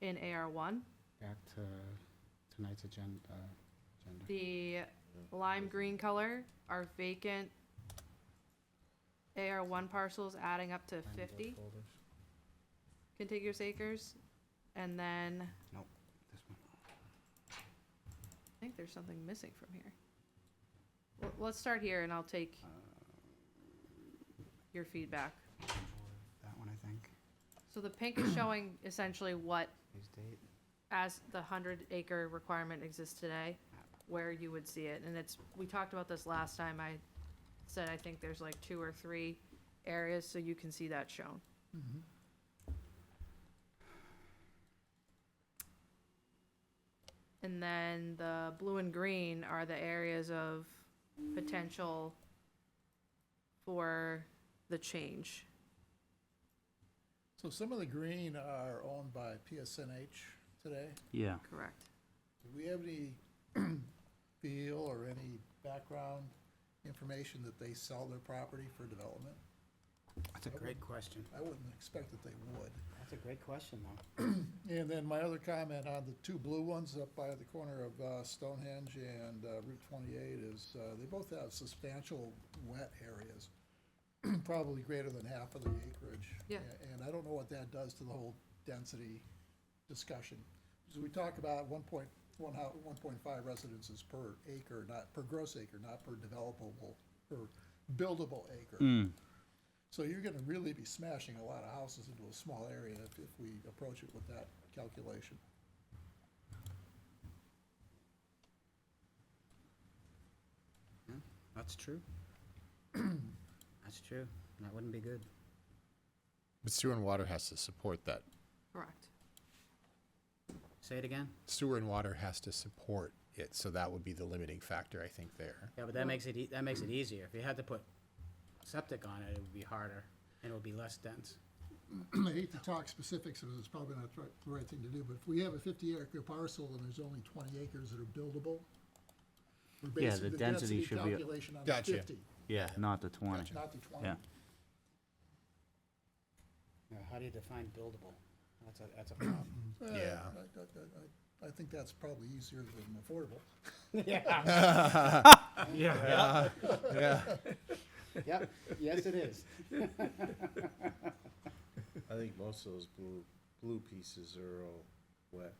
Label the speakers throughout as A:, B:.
A: in AR1.
B: back to tonight's agenda. agenda.
A: The lime green color are vacant AR1 parcels adding up to
B: Find the
A: 50
B: folders.
A: contiguous acres. And then, I
B: This one.
A: think there's something missing from here. Well, Let's start here and I'll take
B: Uh,
A: your feedback.
B: That one, I think.
A: So the pink is showing essentially what,
B: Use date.
A: as the 100 acre requirement exists today, where you would see it. And it's, we talked about this last time. I said I think there's like two or three areas, so you can see that shown.
B: Mm-hmm.
A: And then the blue and green are the areas of potential for the change.
C: So some of the green are owned by PSNH today.
D: Yeah,
A: Correct.
C: Do we have any feel or any background information that they sell their property for development?
B: That's a great question.
C: I wouldn't expect that they would.
B: That's a great question, though.
C: And then my other comment on the two blue ones up by the corner of uh, Stonehenge and uh, Route 28 is uh, they both have substantial wet areas, probably greater than half of the acreage.
A: Yeah.
C: A- And I don't know what that does to the whole density discussion. So we talk about 1.1 hou- 1.5 residences per acre, not, per gross acre, not per developable, per buildable
B: Mm.
C: acre. So you're gonna really be smashing a lot of houses into a small area if, if we approach it with that calculation.
B: That's true. That's true. That wouldn't be good.
E: But sewer and water has to support that.
A: Correct.
B: Say it again?
E: Sewer and water has to support it, so that would be the limiting factor, I think, there.
B: Yeah, but that makes it, ea- that makes it easier. If you had to put septic on it, it would be harder and it would be less dense.
C: I hate to talk specifics, because it's probably not the right- the right thing to do, but if we have a fifty acre parcel and there's only twenty acres that are buildable, we're
D: Yeah,
C: basing
D: the
C: the
D: density
C: density
D: should be-
C: calculation on the
E: Gotcha.
C: fifty,
D: yeah, not the 20.
C: not the twenty.
D: Yeah.
B: Now, how do you define buildable? That's a, that's a problem.
C: Uh,
E: Yeah.
C: I- I- I- I- I think that's probably easier than affordable.
B: Yeah. Yeah.
E: Yeah.
B: Yep, yes, it is.
F: I think most of those blue, blue pieces are all wet.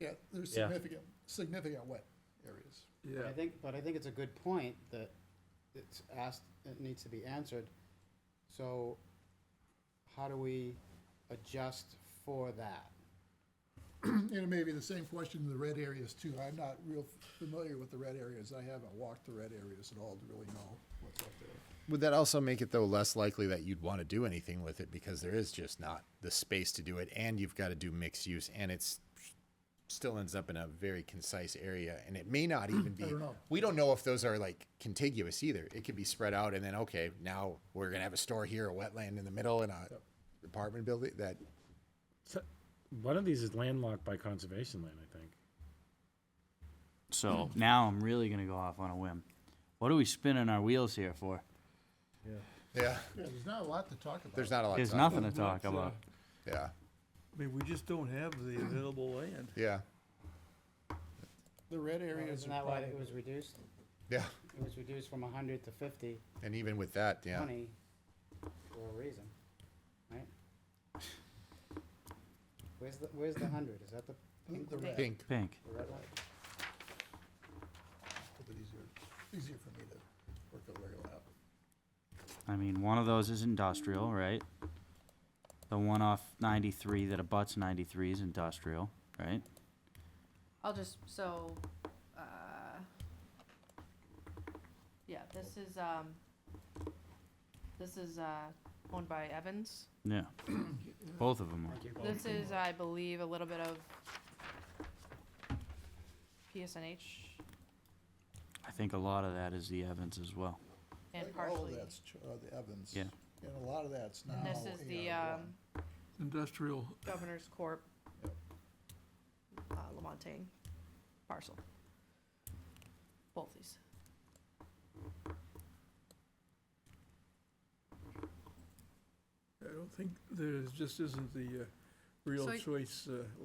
C: Yeah, there's
D: Yeah.
C: significant, significant wet areas.
B: But I think, but I think it's a good point that it's asked, it needs to be answered. So how do we adjust for that?
C: And it may be the same question in the red areas too. I'm not real familiar with the red areas. I haven't walked the red areas at all to really know what's up there.
E: Would that also make it, though, less likely that you'd want to do anything with it because there is just not the space to do it, and you've got to do mixed use, and it's still ends up in a very concise area, and it may not even be.
C: don't know.
E: We don't know if those are like contiguous either. It could be spread out, and then okay, now we're gonna have a store here, a wetland in the middle, and a apartment building. That
G: So, one of these is landlocked by conservation land, I think.
B: Hmm.
D: So now I'm really going to go off on a whim. What are we spinning our wheels here for?
E: yeah,
C: Yeah, there's not a lot to talk about.
E: there's not a lot.
D: There's
E: to talk
D: nothing to talk
G: That's, uh,
D: about.
E: Yeah,
H: I mean, we just don't have the available land.
E: yeah,
C: The red areas
B: Isn't
C: are
B: that why
C: probably,
B: it was reduced?
E: yeah.
B: It was reduced from hundred to fifty,
E: And even with that, yeah,
B: twenty, for a reason, right? Where's the, where's the hundred? Is that the pink
C: the
B: one?
C: red,
E: pink.
D: Pink.
B: The red one?
C: it's easier, easier for me to work a regular out.
D: I mean, one of those is industrial, right? The one off 93 that abuts 93 is industrial, right?
A: I'll just, so, uh, yeah, this is, um, this is, uh, owned by Evans.
D: Yeah. Both of them are.
B: Thank you.
A: This is, I believe, a little bit of PSNH
D: I think a lot of that is the Evans as well.
C: I
A: and
C: think All
A: partially.
C: of that's, ch- uh, the Evans.
D: Yeah.
C: And a lot of that's now.
A: And this is the,
C: AR1.
A: um,
H: Industrial,
A: Governor's Corp.
C: Yep.
A: Uh, Lamontagne parcel. Both these.
H: I don't think, there's just isn't the uh, real
A: So I-
H: choice uh,